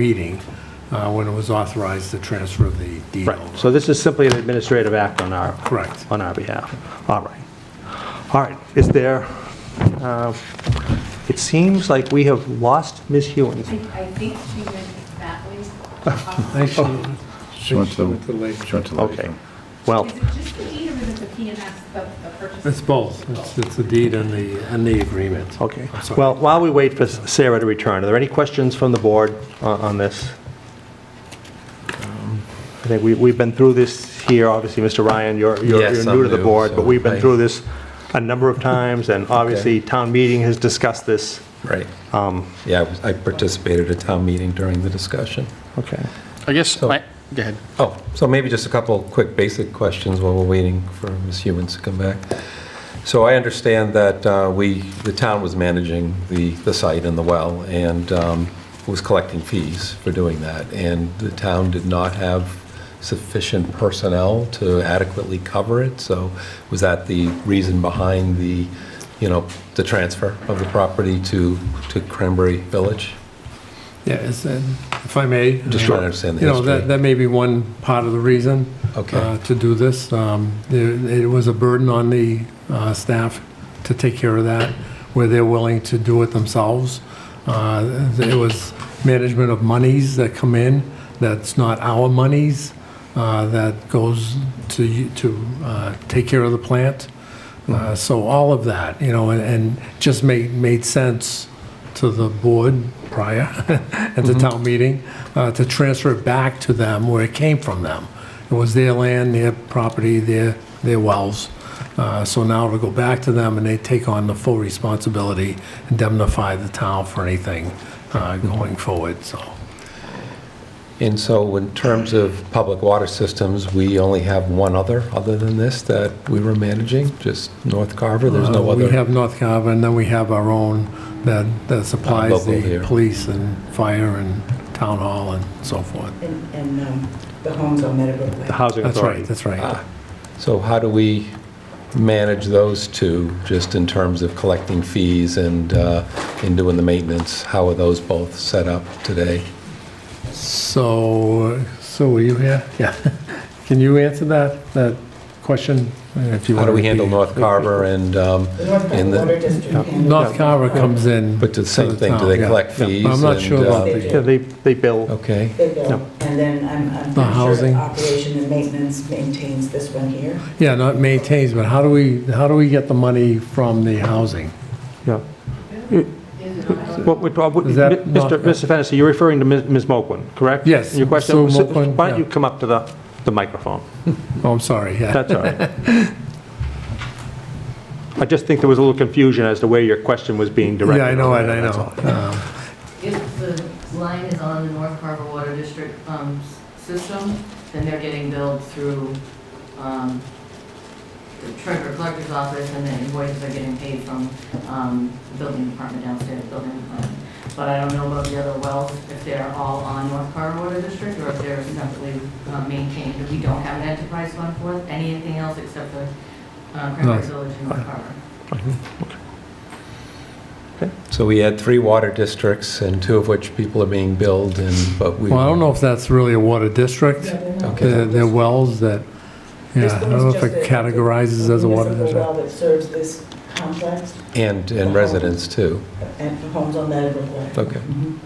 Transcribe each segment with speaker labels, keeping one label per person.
Speaker 1: meeting uh, when it was authorized to transfer the deed
Speaker 2: Right,
Speaker 1: over.
Speaker 2: so this is simply an administrative act on our,
Speaker 1: Correct.
Speaker 2: on our behalf. All right. All right, is there, uh, it seems like we have lost Ms.
Speaker 3: I
Speaker 2: Hewens.
Speaker 3: I think she went that way.
Speaker 1: I see.
Speaker 4: She went to
Speaker 1: Went to Lake.
Speaker 4: she went to the
Speaker 2: Okay, well,
Speaker 3: Is it just the deed or is it the P and S, the the purchase?
Speaker 1: It's both. It's- It's the deed and the, and the agreement.
Speaker 2: okay.
Speaker 1: I'm sorry.
Speaker 2: Well, while we wait for Sarah to return, are there any questions from the board on on this? Um, I think we- we've been through this here, obviously, Mr. Ryan, you're you're
Speaker 5: Yes,
Speaker 2: you're
Speaker 5: I'm
Speaker 2: new to the
Speaker 5: new,
Speaker 2: board,
Speaker 5: so
Speaker 2: but we've been
Speaker 5: I-
Speaker 2: through this a number of times, and obviously, town meeting has discussed this.
Speaker 5: Right.
Speaker 2: Um,
Speaker 5: Yeah, I was- I participated at town meeting during the discussion.
Speaker 2: Okay.
Speaker 6: I guess,
Speaker 5: So-
Speaker 6: I- go ahead.
Speaker 5: Oh, so maybe just a couple quick basic questions while we're waiting for Ms. Hewens to come back. So I understand that uh, we, the town was managing the, the site and the well and um, was collecting fees for doing that. And the town did not have sufficient personnel to adequately cover it. So was that the reason behind the, you know, the transfer of the property to, to Cranberry Village?
Speaker 1: Yeah, it's, uh, if I may. uh,
Speaker 5: Just trying to understand the
Speaker 1: You know, that,
Speaker 5: history.
Speaker 1: that may be one part of the reason.
Speaker 5: Okay.
Speaker 1: uh, To do this. Um, there- It was a burden on the uh, staff to take care of that, where they're willing to do it themselves. Uh, It was management of monies that come in, that's not our monies, uh, that goes to, you- to uh, take care of the plant. Uh, So all of that, you know, and- and just made, made sense to the board prior at the town meeting uh, to transfer it back to them where it came from them. It was their land, their property, their, their wells. Uh, So now it'll go back to them and they take on the full responsibility, indemnify the town for anything uh, going forward, so.
Speaker 5: And so in terms of public water systems, we only have one other, other than this, that we were managing, just North Carver, there's no
Speaker 1: Uh, We
Speaker 5: other?
Speaker 1: have North Carver and then we have our own that, that supplies
Speaker 5: local
Speaker 1: the
Speaker 5: here.
Speaker 1: police and fire and town hall and so forth.
Speaker 7: And, and um, the homes on Meadowbrook Way.
Speaker 2: The Housing
Speaker 1: That's
Speaker 2: Authority.
Speaker 1: right, that's right.
Speaker 5: Ah, So how do we manage those two, just in terms of collecting fees and, uh, and doing the maintenance? How are those both set up today?
Speaker 1: So, so were you here? Yeah. Can you answer that, that question? if you
Speaker 5: How do
Speaker 1: wanna
Speaker 5: we handle
Speaker 1: repeat?
Speaker 5: North Carver and, um,
Speaker 7: The North
Speaker 5: and
Speaker 7: Carolina Water
Speaker 5: the-
Speaker 7: District. and-
Speaker 1: North Carver comes in.
Speaker 5: but the
Speaker 1: to
Speaker 5: same
Speaker 1: the
Speaker 5: thing, do they
Speaker 1: town, yeah.
Speaker 5: collect fees?
Speaker 1: I'm not
Speaker 5: and,
Speaker 1: sure about
Speaker 5: uh,
Speaker 2: Yeah, they, they bill.
Speaker 5: Okay,
Speaker 7: They bill.
Speaker 2: No.
Speaker 7: And then I'm, I'm
Speaker 1: The
Speaker 7: pretty sure
Speaker 1: housing.
Speaker 7: operation and maintenance maintains this one here.
Speaker 1: Yeah, no, it maintains, but how do we, how do we get the money from the housing?
Speaker 2: Yeah. What would- what would-
Speaker 1: Is that not-
Speaker 2: Mr. Mr. Fennessy, you're referring to Ms. Ms. Moquin, correct?
Speaker 1: Yes,
Speaker 2: Your question,
Speaker 1: Sue
Speaker 2: was-
Speaker 1: Moquin,
Speaker 2: why don't you
Speaker 1: yeah.
Speaker 2: come up to the, the microphone?
Speaker 1: Oh, I'm sorry, yeah.
Speaker 2: That's all right. I just think there was a little confusion as to where your question was being directed.
Speaker 1: Yeah, I know,
Speaker 2: on,
Speaker 1: it, I
Speaker 2: that's
Speaker 1: know.
Speaker 2: all.
Speaker 1: Um,
Speaker 8: If the line is on the North Carver Water District um, s- system, then they're getting billed through um, the treasurer collector's office, and the invoices are getting paid from um, the building department downstairs, building department. But I don't know about the other wells, if they're all on North Carver Water District, or if they're separately uh, maintained. We don't have an enterprise fund for anything else except for uh,
Speaker 1: No.
Speaker 8: Cranberry Village and North Carver.
Speaker 5: so we had three water districts, and two of which people are being billed, and, but we...
Speaker 1: Well, I don't know if that's really a water district.
Speaker 7: Yeah, they're not-
Speaker 5: Okay.
Speaker 1: They're they're wells that, yeah,
Speaker 7: This
Speaker 1: I
Speaker 7: one
Speaker 1: don't
Speaker 7: is
Speaker 1: know if
Speaker 7: just
Speaker 1: it
Speaker 7: a-
Speaker 1: categorizes as a water district.
Speaker 7: municipal well that serves this complex
Speaker 5: And, and residents too.
Speaker 7: and the homes on Meadowbrook Way.
Speaker 5: Okay.
Speaker 7: Mhm.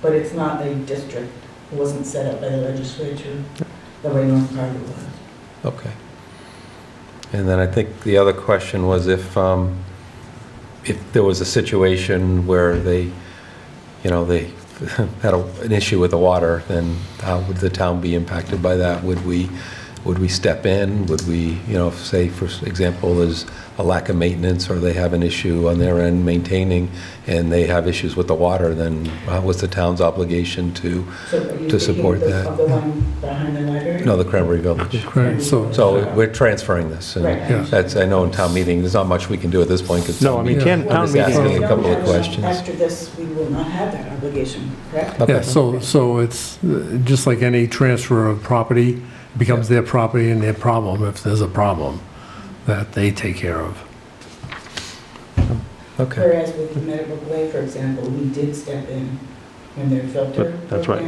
Speaker 7: But it's not a district. It wasn't set up by the legislature the way North Carver was.
Speaker 5: Okay. And then I think the other question was if, um, if there was a situation where they, you know, they had a- an issue with the water, then how would the town be impacted by that? Would we, would we step in? Would we, you know, say, for example, there's a lack of maintenance, or they have an issue on their end maintaining, and they have issues with the water, then how was the town's obligation to,
Speaker 7: So are you
Speaker 5: To
Speaker 7: thinking
Speaker 5: support
Speaker 7: of the-
Speaker 5: that.
Speaker 7: Of the one behind the library?
Speaker 5: no, the Cranberry Village?
Speaker 1: Correct, so,
Speaker 5: So we're transferring this, and
Speaker 7: Right.
Speaker 1: Yeah.
Speaker 5: that's, I know in town meeting, there's not much we can do at this point, because.
Speaker 2: No, I mean, town
Speaker 5: I'm
Speaker 2: town
Speaker 5: just
Speaker 2: meeting,
Speaker 5: asking a couple of questions.
Speaker 7: After this, we will not have that obligation, correct?
Speaker 1: yeah, so, so it's uh, just like any transfer of property, becomes their property and their problem if there's a problem that they take care of.
Speaker 5: Okay.
Speaker 7: Whereas with the Meadowbrook Way, for example, we did step in when their filter.
Speaker 2: That's
Speaker 7: broke
Speaker 2: right.